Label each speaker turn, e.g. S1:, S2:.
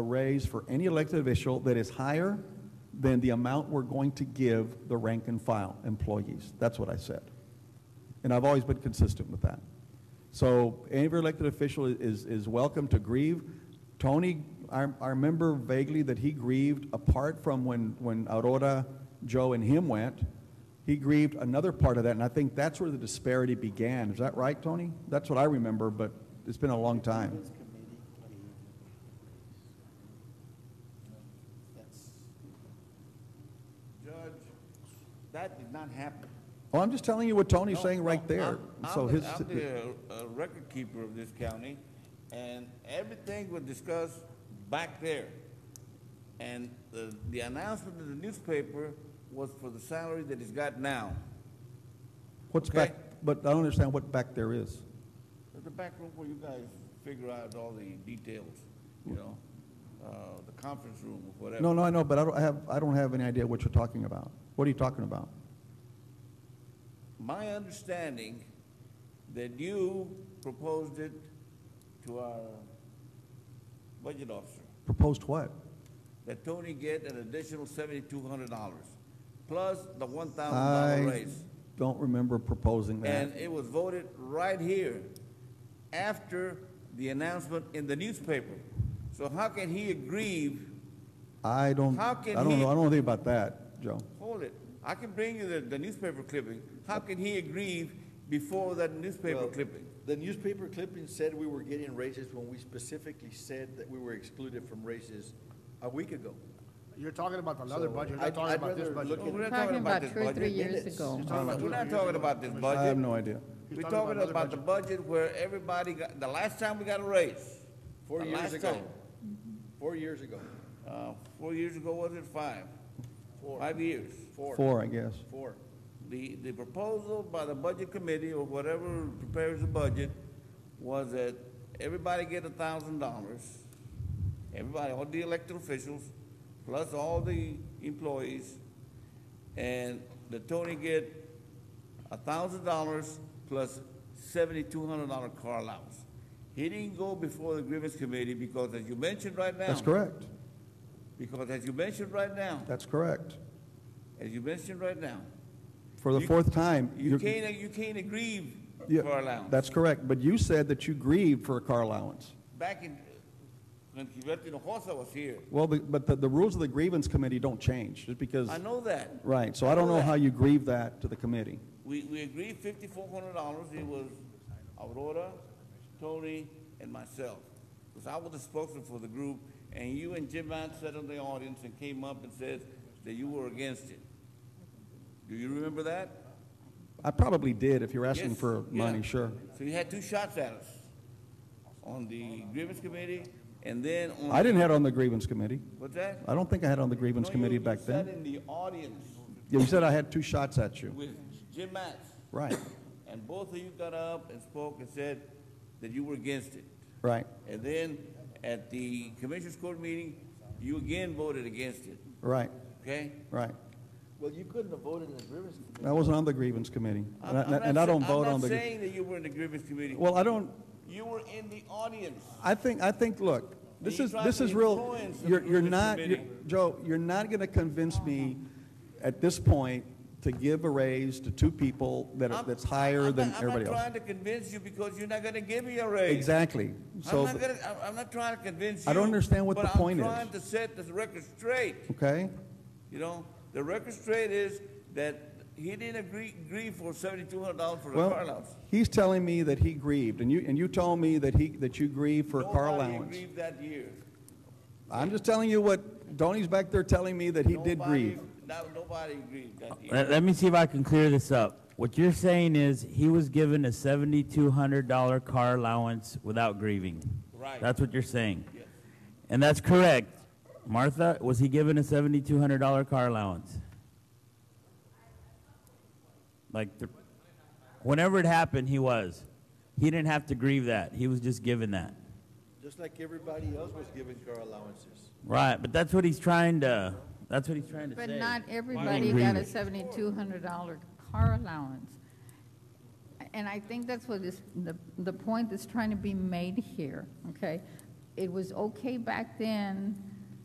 S1: raise for any elected official that is higher than the amount we're going to give the rank and file employees. That's what I said. And I've always been consistent with that. So any elected official is, is welcome to grieve. Tony, I, I remember vaguely that he grieved apart from when, when Aurora, Joe, and him went. He grieved another part of that, and I think that's where the disparity began. Is that right, Tony? That's what I remember, but it's been a long time.
S2: Judge, that did not happen.
S1: Oh, I'm just telling you what Tony's
S2: No,
S1: saying right
S2: no,
S1: there.
S2: I'm- I'm
S1: So
S2: the-
S1: his,
S2: I'm the uh, record keeper of this county, and everything was discussed back there. And the, the announcement in the newspaper was for the salary that he's got now.
S1: what's
S2: okay.
S1: back, but I don't understand what back there is.
S2: There's a back room where you guys figure out all the details, you know, uh, the conference room or whatever.
S1: No, no, I know, but I don't I have, I don't have any idea what you're talking about. What are you talking about?
S2: My understanding that you proposed it to our budget officer,
S1: Proposed what?
S2: that Tony get an additional seventy-two hundred dollars, plus the one thousand dollar
S1: I
S2: raise.
S1: don't remember proposing that.
S2: And it was voted right here after the announcement in the newspaper. So how can he aggrieve,
S1: I don't, I
S2: how can
S1: don't
S2: he-
S1: know, I don't know anything about that, Joe.
S2: hold it, I can bring you the, the newspaper clipping, how can he aggrieve before that newspaper
S3: Well,
S2: clipping?
S3: The newspaper clipping said we were getting raises when we specifically said that we were excluded from raises a week ago.
S4: You're talking about another
S3: So,
S4: budget, you're
S3: I'd-
S4: not talking
S3: I'd
S4: about this
S3: rather
S4: budget.
S3: look at-
S2: We're not
S5: Talking about
S2: this
S5: two or
S2: budget.
S5: three years
S3: Minutes.
S5: ago.
S3: You're
S4: talking about
S2: We're
S4: two
S2: not
S4: years
S2: talking
S4: ago,
S2: about this
S4: Commissioner.
S1: I have
S2: budget.
S1: no idea.
S2: We're
S4: You're talking
S2: talking
S4: about
S2: about the
S4: another
S2: budget where everybody got, the last time we got a raise.
S3: Four
S2: The
S3: years
S2: last
S3: ago.
S2: time.
S3: Four years ago.
S2: Uh, four years ago, was it five?
S3: Four.
S2: Five years.
S3: Four.
S1: Four, I guess.
S3: Four.
S2: The, the proposal by the budget committee or whatever prepares the budget was that everybody get a thousand dollars. Everybody, all the elected officials, plus all the employees. And the Tony get a thousand dollars plus seventy-two hundred dollar car allowance. He didn't go before the grievance committee because as you mentioned right now.
S1: That's correct.
S2: Because as you mentioned right now,
S1: That's correct.
S2: as you mentioned right now,
S1: For the
S2: You-
S1: fourth time.
S2: You
S1: you're-
S2: can't, you can't aggrieve
S1: yeah,
S2: car allowance.
S1: That's correct, but you said that you grieved for a car allowance.
S2: Back in, when Gilberto Hinojosa was here,
S1: Well, the- but the, the rules of the grievance committee don't change, just because,
S2: I know that.
S1: right, so I don't know how you grieve that to the committee.
S2: We, we agreed fifty-four hundred dollars, it was Aurora, Tony, and myself. Because I was the spokesman for the group, and you and Jim Mount sat in the audience and came up and said that you were against it. Do you remember that?
S1: I probably did, if you're asking
S2: Yes,
S1: for
S2: yeah.
S1: money, sure.
S2: So you had two shots at us, on the grievance committee, and then on.
S1: I didn't have it on the grievance committee.
S2: What's that?
S1: I don't think I had it on the grievance
S2: No, you-
S1: committee
S2: you
S1: back then.
S2: sat in the audience
S1: Yeah, You said I had two shots at you.
S2: with Jim Matz,
S1: Right,
S2: and both of you got up and spoke and said that you were against it.
S1: right,
S2: And then at the commissioners court meeting, you again voted against it,
S1: right,
S2: okay?
S1: right.
S3: Well, you couldn't have voted in the grievance committee.
S1: I wasn't on the grievance committee.
S2: I'm-
S1: And I-
S2: I'm not
S1: and I
S2: sa-
S1: don't vote
S2: I'm
S1: on
S2: not
S1: the,
S2: saying that you were in the grievance committee.
S1: well, I don't,
S2: You were in the audience.
S1: I think, I think, look, this
S2: You
S1: is,
S2: tried
S1: this
S2: to
S1: is real,
S2: influence the
S1: you're, you're
S2: grievance
S1: not, you're-
S2: committee.
S1: Joe, you're not going to convince me at this point to give a raise to two people that are,
S2: I'm-
S1: that's higher
S2: I'm
S1: than
S2: not-
S1: everybody
S2: I'm not
S1: else.
S2: trying to convince you because you're not gonna give me a raise.
S1: Exactly.
S2: I'm
S1: So,
S2: not gonna, I'm- I'm not trying to convince you.
S1: I don't understand what the point is.
S2: But I'm trying to set the record straight.
S1: okay,
S2: You know, the record straight is that he didn't agree, agree for seventy-two hundred dollars for the car
S1: well,
S2: allowance.
S1: he's telling me that he grieved, and you, and you told me that he, that you grieved for a car
S2: Nobody
S1: allowance.
S2: agreed that year.
S1: I'm just telling you what Tony's back there telling me that he did
S2: Nobody-
S1: grieve.
S2: No, nobody agreed that year.
S6: Let, let me see if I can clear this up. What you're saying is he was given a seventy-two hundred dollar car allowance without grieving.
S2: Right.
S6: That's what you're saying.
S2: Yes.
S6: And that's correct. Martha, was he given a seventy-two hundred dollar car allowance? Like, the, whenever it happened, he was. He didn't have to grieve that. He was just given that.
S3: Just like everybody else was given car allowances.
S6: Right, but that's what he's trying to, that's what he's trying to
S5: But
S6: say.
S5: not everybody got a seventy-two hundred dollar car allowance. And I think that's what is, the, the point that's trying to be made here, okay? it was okay back then